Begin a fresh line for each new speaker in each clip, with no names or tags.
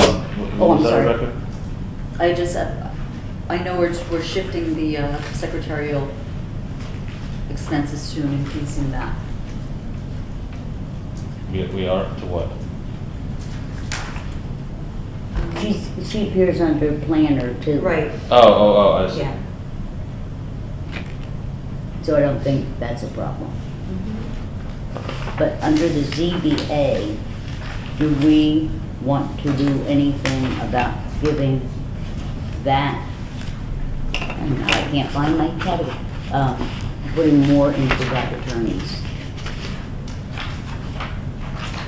Oh, I'm
Was that
sorry.
Rebecca?
I just, uh, I know we're, we're shifting the uh, secretarial expenses to and increasing that.
We, we are to what?
She's, she appears under planner too.
Right,
Oh, oh, oh, I see.
yeah.
So I don't think that's a problem.
Mm-hmm.
But under the ZBA, do we want to do anything about giving that? And I can't find my category, um, putting more into that attorneys.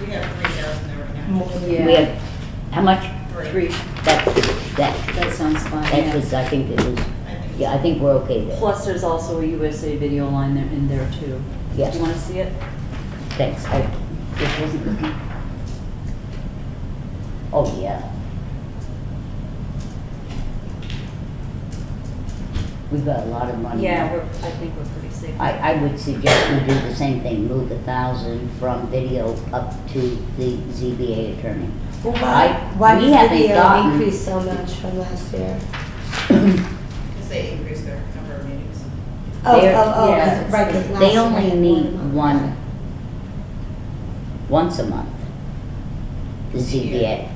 We have three thousand there right now.
More than-
Yeah.
We have, how much?
Three,
That, that,
that sounds fine,
that was,
yeah.
I think it was,
I think it's-
yeah, I think we're okay there.
Plus, there's also a USA video line there, in there too.
Yes.
Do you wanna see it?
Thanks, I, this wasn't looking. Oh, yeah. We've got a lot of money.
Yeah, we're, I think we're pretty safe.
I, I would suggest we do the same thing, move a thousand from video up to the ZBA attorney.
Well,
I-
why, why
we
did
haven't
video
gotten-
increase so much from last year?
Because they increased their number of meetings.
Oh,
They're-
oh, oh, 'cause-
yeah,
right, 'cause last
They
year
only
had
need
a month.
one, once a month, the ZBA.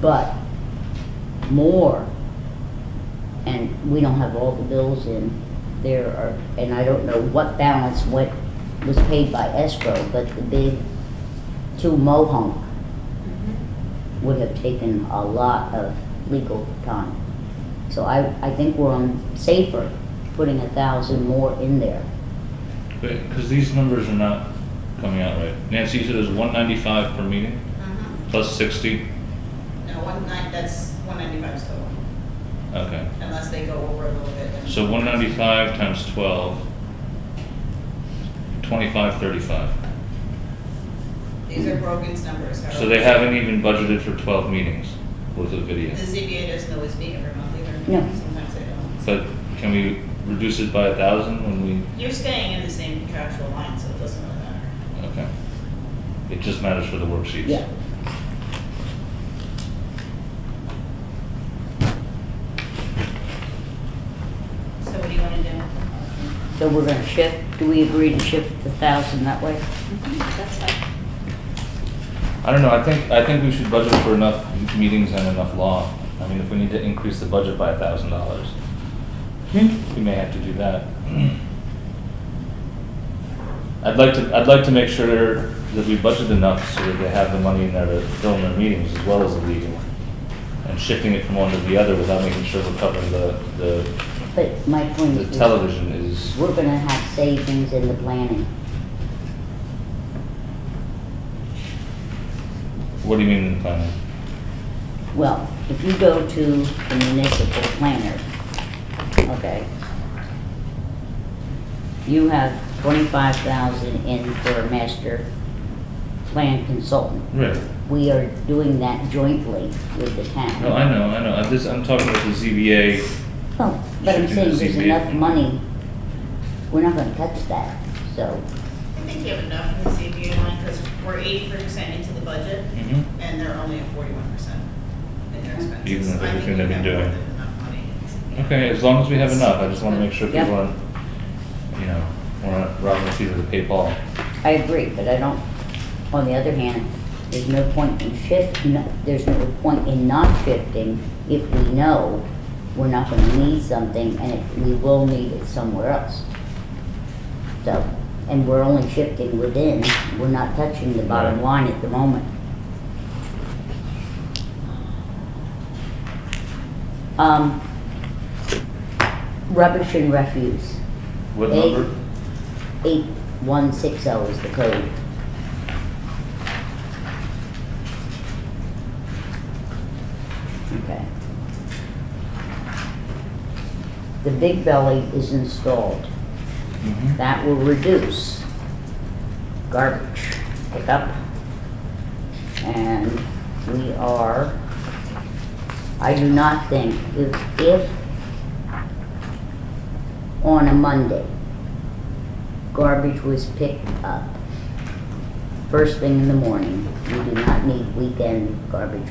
But more, and we don't have all the bills in, there are, and I don't know what balance what was paid by escrow, but the big two Mohonk would have taken a lot of legal time. So I, I think we're on safer, putting a thousand more in there.
Because these numbers are not coming out right. Nancy, you said it's one ninety-five per meeting,
Mhm.
plus sixty?
No, one nine, that's one ninety-five still,
Okay.
unless they go over a little bit. and-
So one ninety-five times twelve, twenty-five, thirty-five.
These are Brogan's numbers. however.
So they haven't even budgeted for twelve meetings worth of
The
video.
ZBA doesn't always meet every month either.
No.
Sometimes they don't.
But can we reduce it by a thousand when we,
You're staying in the same contractual line, so it doesn't really matter.
okay. It just matters for the worksheets.
Yeah.
So what do you want to do?
So we're gonna shift, do we agree to shift the thousand that way?
Mhm, That's fine.
I don't know, I think, I think we should budget for enough meetings and enough law. I mean, if we need to increase the budget by a thousand dollars, we may have to do that. I'd like to, I'd like to make sure that we budget enough so that they have the money in there to film their meetings as well as the legal. And shifting it from one to the other without making sure we're covering the, the,
But my point
the
is,
television is,
we're gonna have savings in the planning.
what do you mean in planning?
Well, if you go to the municipal planner, okay, you have twenty-five thousand in for a master plan consultant.
Right.
We are doing that jointly with the town.
No, I know, I know, I'm just, I'm talking about the ZBA
Well, Oh, but I'm
Shifting
saying
the
there's
ZBA.
enough money, we're not gonna touch that, so,
I think you have enough in the ZBA line, because we're eighty-three percent into the budget,
Mhm.
and they're only at forty-one percent in their expenses.
Even with
I think
everything
we
they've been
have more
doing.
than enough money in the ZBA.
Okay, as long as we have enough, I just wanna make sure
Yeah.
people aren't, you know, we're not robbing the Peter to pay Paul.
I agree, but I don't, on the other hand, there's no point in shift, no- there's no point in not shifting if we know we're not gonna need something and it- we will need it somewhere else. So, and we're only shifting within, we're not touching the bottom
Right.
line at the moment. Um, rubbish and refuse.
What
Eight.
number?
8160 is the code. Okay. The big belly is installed.
Mhm.
That will reduce garbage pickup. And we are, I do not think, if, if on a Monday, garbage was picked up first thing in the morning, we do not need weekend garbage